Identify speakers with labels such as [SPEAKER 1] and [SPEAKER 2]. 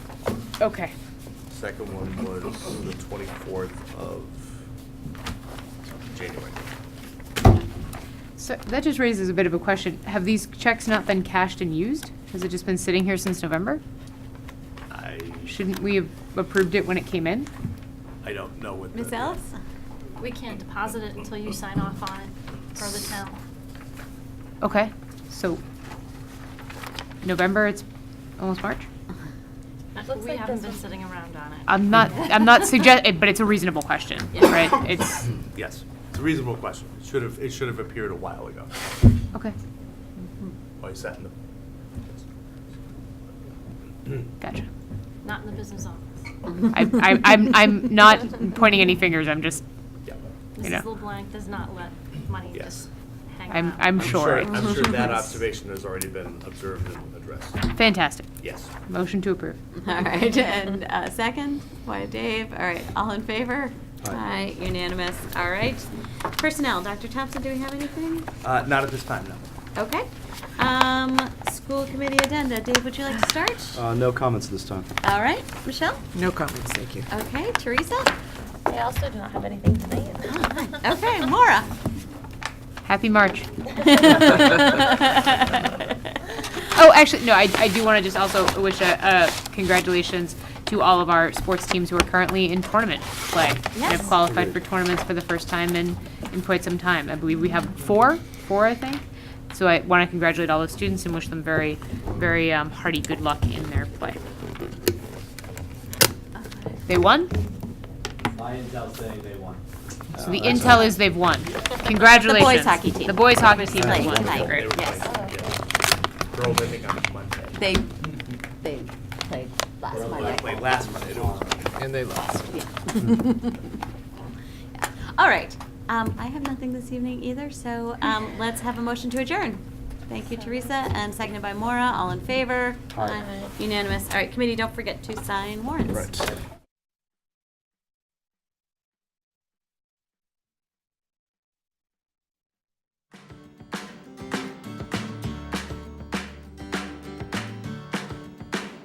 [SPEAKER 1] Okay.
[SPEAKER 2] Second one was the twenty-fourth of January.
[SPEAKER 1] So that just raises a bit of a question. Have these checks not been cashed and used? Has it just been sitting here since November?
[SPEAKER 2] I,
[SPEAKER 1] Shouldn't we have approved it when it came in?
[SPEAKER 2] I don't know what. the-
[SPEAKER 3] Ms. Ellis?
[SPEAKER 4] We can't deposit it until you sign off on it for the town.
[SPEAKER 1] Okay, so November, it's almost March?
[SPEAKER 4] We haven't been sitting around on it.
[SPEAKER 1] I'm not, I'm not suggesting, but it's a reasonable question,
[SPEAKER 4] Yeah.
[SPEAKER 1] right? It's,
[SPEAKER 2] Yes, it's a reasonable question. It should have, it should have appeared a while ago.
[SPEAKER 1] okay,
[SPEAKER 2] Why is that in the?
[SPEAKER 1] gotcha.
[SPEAKER 4] Not in the business office.
[SPEAKER 1] I, I, I'm, I'm not pointing any fingers, I'm just,
[SPEAKER 2] Yeah.
[SPEAKER 1] You know.
[SPEAKER 4] Mrs. LeBlanc does not let money
[SPEAKER 2] Yes.
[SPEAKER 4] just hang out.
[SPEAKER 1] I'm, I'm sure.
[SPEAKER 2] I'm sure that observation has already been observed and addressed.
[SPEAKER 1] Fantastic.
[SPEAKER 2] Yes.
[SPEAKER 1] Motion to approve.
[SPEAKER 3] All right, and uh, second, why Dave, all right, all in favor?
[SPEAKER 2] Aye.
[SPEAKER 3] Aye, unanimous, all right. Personnel, Dr. Thompson, do we have anything?
[SPEAKER 2] Uh, not at this time, no.
[SPEAKER 3] Okay. Um, School committee addenda, Dave, would you like to start?
[SPEAKER 5] Uh, No comments this time.
[SPEAKER 3] All right, Michelle?
[SPEAKER 6] No comments, thank you.
[SPEAKER 3] Okay, Teresa? Oh,
[SPEAKER 7] I also don't have anything tonight.
[SPEAKER 3] Okay, Maura?
[SPEAKER 1] Happy March. Oh, actually, no, I, I do want to just also wish a, a congratulations to all of our sports teams who are currently in tournament play. And
[SPEAKER 3] Yes.
[SPEAKER 1] have qualified for tournaments for the first time in, in quite some time. I believe we have four, four, I think. So I want to congratulate all the students and wish them very, very um, hearty good luck in their play. They won?
[SPEAKER 5] My intel saying they won. Uh,
[SPEAKER 1] So the intel is they've won. Congratulations.
[SPEAKER 3] hockey team.
[SPEAKER 1] The boys hockey team has
[SPEAKER 3] Playing
[SPEAKER 1] won.
[SPEAKER 3] tonight.
[SPEAKER 1] Great.
[SPEAKER 3] Yes.
[SPEAKER 2] Girls, I think on Monday.
[SPEAKER 3] They,
[SPEAKER 7] They played last
[SPEAKER 2] They
[SPEAKER 7] Monday.
[SPEAKER 2] played last Monday. It was-
[SPEAKER 6] And they lost.
[SPEAKER 3] yeah. All right, um, I have nothing this evening either, so, um, let's have a motion to adjourn. Thank you, Teresa, and seconded by Maura, all in favor?
[SPEAKER 5] Aye.
[SPEAKER 3] Unanimous. All right, committee, don't forget to sign warrants.
[SPEAKER 5] Right.